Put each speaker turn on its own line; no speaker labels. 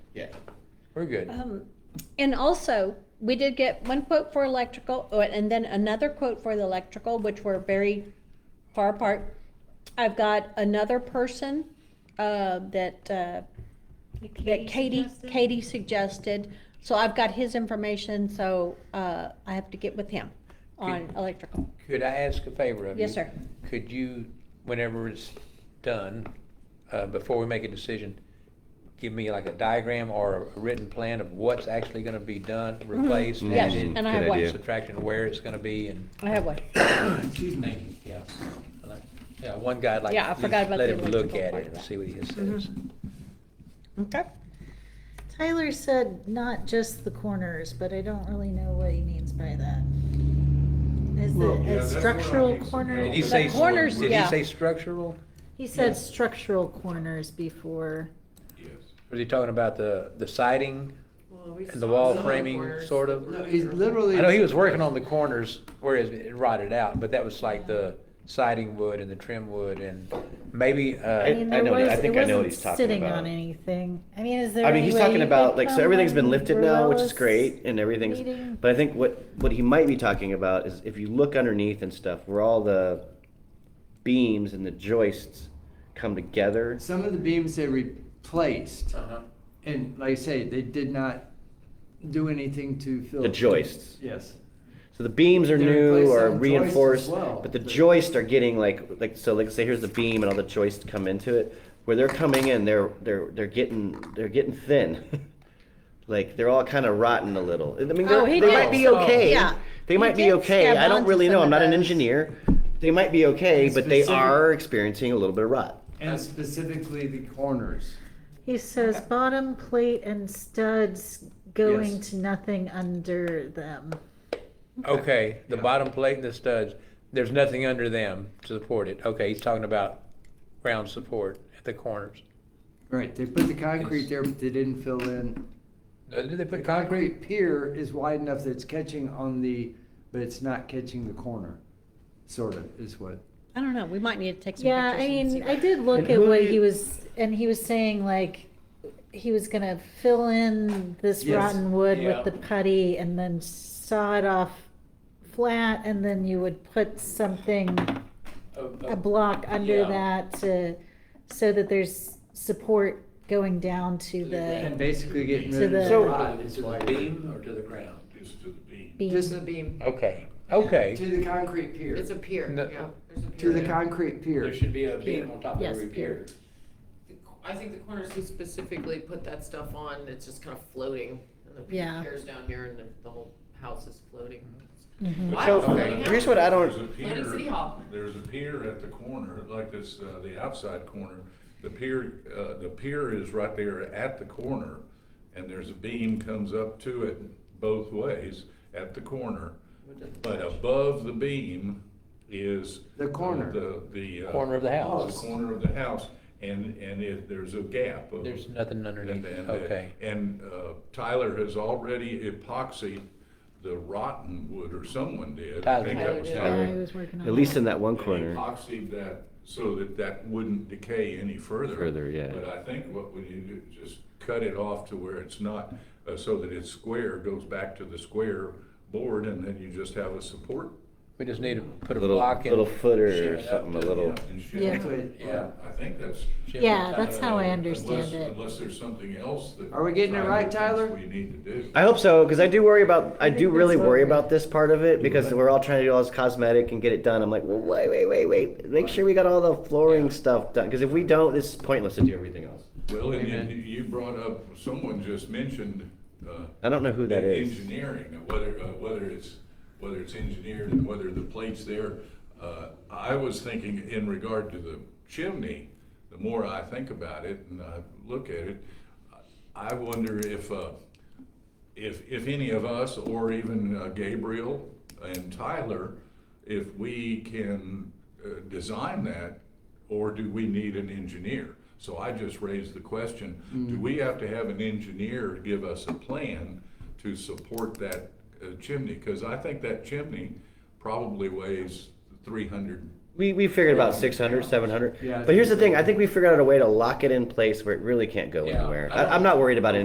Yeah, we're good.
Um, And also, we did get one quote for electrical, oh, and then another quote for the electrical, which were very far apart. I've got another person, uh, that, uh, that Katie, Katie suggested. So I've got his information, so, uh, I have to get with him on
Good.
electrical.
Could I ask a favor of you?
Yes, sir.
Could you, whenever it's done, uh, before we make a decision, give me like a diagram or a written plan of what's actually gonna be done, replaced,
Mhm. Yes,
added,
and I have
Good
one.
idea.
subtracted, where it's gonna be, and,
I have one.
excuse me, yeah. like- Yeah, one guy, like,
Yeah, I
just
forgot about
let
the
him look
electrical
at
part
it
of
and
that.
see what he says.
Mhm. Okay.
Tyler said not just the corners, but I don't really know what he means by that. Is
Well, yeah,
it a
that's what I
structural
need some
corner?
Did he
help
say,
The
corners,
did he
yeah.
say structural?
He said
Yeah.
structural corners before.
Yes.
Was he talking about the, the siding? And the wall framing, sort of?
No, he's literally.
I know he was working on the corners where it rotted out, but that was like the siding wood and the trim wood and maybe,
I
uh,
mean,
I
there
know that- I
was, it
think I know what
wasn't
he's talking
sitting
about.
on anything. I mean, is there
I mean,
any
he's
way
talking
you
about
could
like so
come
everything's been
on
lifted now, which is
Ruella's
great, and everything's.
meeting?
But I think what what he might be talking about is if you look underneath and stuff, where all the beams and the joists come together.
Some of the beams they replaced,
Uh-huh.
and like I say, they did not do anything to fill.
The joists.
Yes.
So the beams are
They
new
replaced
or
some joists as
reinforced,
well.
but the joists are getting like like so like say here's the beam and all the joists come into it. Where they're coming in, they're they're they're getting they're getting thin. like they're all kind of rotten a little. I mean,
Oh,
they're-
he
they
did.
might be
Oh.
okay.
Yeah.
They
He
might be
did
okay.
stab
I don't
onto
really know.
some
I'm
of
not an
those.
engineer. They might be okay, but they
Specific-
are experiencing a little bit of rot.
And specifically the corners.
He says bottom plate and studs going
Yes.
to nothing under them.
okay, the bottom plate and the studs, there's nothing under them to support it. Okay, he's talking about ground support at the corners.
Right, they put the concrete there, but they didn't fill in.
Uh, Did they
The
put concrete?
concrete pier is wide enough that it's catching on the, but it's not catching the corner, sort of, is what.
I don't know, we might need to take some
Yeah,
pictures.
I
and see
mean,
what-
I did
And
look at
who
what
did-
he was, and he was saying like, he was gonna fill in this
Yes.
rotten wood
Yeah.
with the putty and then saw it off flat, and then you would put something, a block under
uh, Oh, yeah.
that to, so that there's support going down to
And
the
basically getting
To
rid of
the-
the
So-
rod is why.
beam or to the ground?
It's to the beam.
beam.
Just the beam.
beam.
Okay, okay.
To the concrete pier.
It's a pier,
No.
yeah. there's a
To
pier.
the concrete pier.
be a
beam
on top
of Yes, every pier.
The co- I think the corners who specifically put that stuff on, it's just kind of floating. And the
Yeah.
pier's down here and the, the whole house is floating.
Mm-hmm.
Mhm.
Wow,
So,
there you
here's
go.
what I don't-
There's a pier-
Lennon City Hall.
There's a pier at the corner, like this, uh, the outside corner. The pier, uh, the pier is right there at the corner, and there's a beam comes up to it both ways at the corner. But above the beam is.
The corner.
The, the. uh,
Corner of the
The
house.
corner of the house, and, and it, there's a gap of.
There's nothing underneath,
And, and, uh,
okay.
and uh, Tyler has already epoxied the rotten wood, or someone did. I think that was
Tyler
Yeah, he
Tyler.
was working on
At least
that.
in that one
And
corner.
Epoxied that so that that wouldn't decay any further.
Further, yeah.
But I think what we need to do is just cut it off to where it's not, uh, so that it's square, goes back to the square board, and then you just have a support.
We just need to put a
Little-
block in.
little footer or
Yeah,
something, a
yeah,
little.
and shit.
Yeah.
But, yeah.
I think that's.
Yeah, that's how I
Unless-
understand it.
Unless there's something else that.
Are we getting it right, Tyler?
We need to do.
I hope so, because I do worry about, I
I think
do really
that's
worry
what we-
about this part of it, because we're all trying to do all this cosmetic and get it done. I'm like, well, wait, wait, wait, wait, make sure we got all the flooring stuff done, because if we don't, it's pointless to do everything else.
Well, and
Amen.
then you brought up, someone just mentioned. uh,
I don't know who that is.
Engineering, uh, whether, uh, whether it's, whether it's engineered and whether the plate's there. Uh, I was thinking in regard to the chimney, the more I think about it and I look at it, I wonder if, uh, if, if any of us, or even uh, Gabriel and Tyler, if we can uh, design that, or do we need an engineer? So I just raised the question, do we have to have an engineer give us a plan to support that uh, chimney? Because I think that chimney probably weighs three hundred.
We, we figured about 600, 700.
Yeah, I
but here's the
think
thing,
so.
I think we figured out a way to lock it in place where it really can't go
Yeah.
anywhere. I, I'm not worried about it.